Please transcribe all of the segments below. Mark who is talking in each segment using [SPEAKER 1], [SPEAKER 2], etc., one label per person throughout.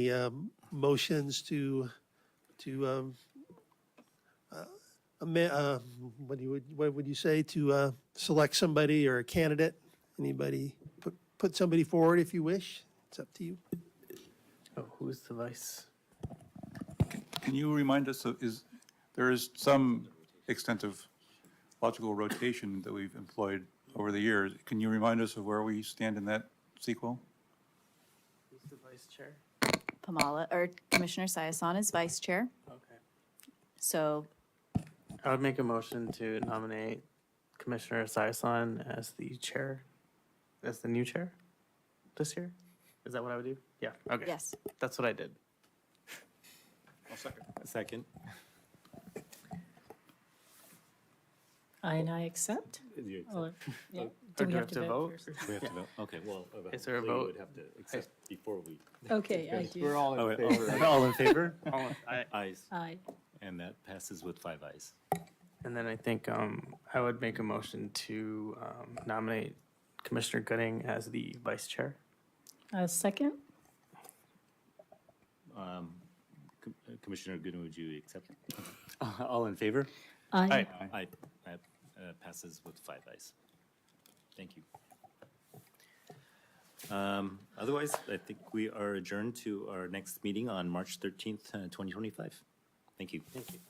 [SPEAKER 1] Any um, motions to, to um, uh, ama- uh, what do you, would- what would you say, to uh, select somebody or a candidate? Anybody, put, put somebody forward if you wish, it's up to you.
[SPEAKER 2] Oh, who's the vice?
[SPEAKER 3] Can you remind us, of- is, there is some extent of logical rotation that we've employed over the years. Can you remind us of where we stand in that sequel?
[SPEAKER 2] Who's the vice chair?
[SPEAKER 4] Pamela, or Commissioner Sayasan is vice chair.
[SPEAKER 2] Okay.
[SPEAKER 4] So
[SPEAKER 2] I would make a motion to nominate Commissioner Saison as the chair, as the new chair this year. Is that what I would do? Yeah, okay.
[SPEAKER 4] Yes.
[SPEAKER 2] That's what I did.
[SPEAKER 5] Second.
[SPEAKER 6] I and I accept?
[SPEAKER 5] You accept-
[SPEAKER 6] Or, yeah,
[SPEAKER 2] Or
[SPEAKER 6] do we have to vote? first?
[SPEAKER 5] We have to vote, okay, well.
[SPEAKER 2] Is there a
[SPEAKER 5] hopefully you
[SPEAKER 2] vote?
[SPEAKER 5] would have to accept before we.
[SPEAKER 6] Okay, I do.
[SPEAKER 7] all
[SPEAKER 5] Oh, wait, All all in favor?
[SPEAKER 2] All in- I-
[SPEAKER 5] Ayes,
[SPEAKER 6] Aye.
[SPEAKER 5] and that passes with five ayes.
[SPEAKER 2] And then I think um, I would make a motion to um, nominate Commissioner Gooding as the vice chair.
[SPEAKER 6] A uh, second?
[SPEAKER 5] Com- uh, Commissioner Gooden, would you accept? All in favor?
[SPEAKER 6] Aye.
[SPEAKER 5] Aye, that uh, passes with five ayes. Thank you. Um, Otherwise, I think we are adjourned to our next meeting on March 13th, uh, 2025. Thank you. Thank you.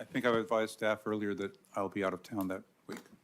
[SPEAKER 3] I think I advised staff earlier that I'll be out of town that week.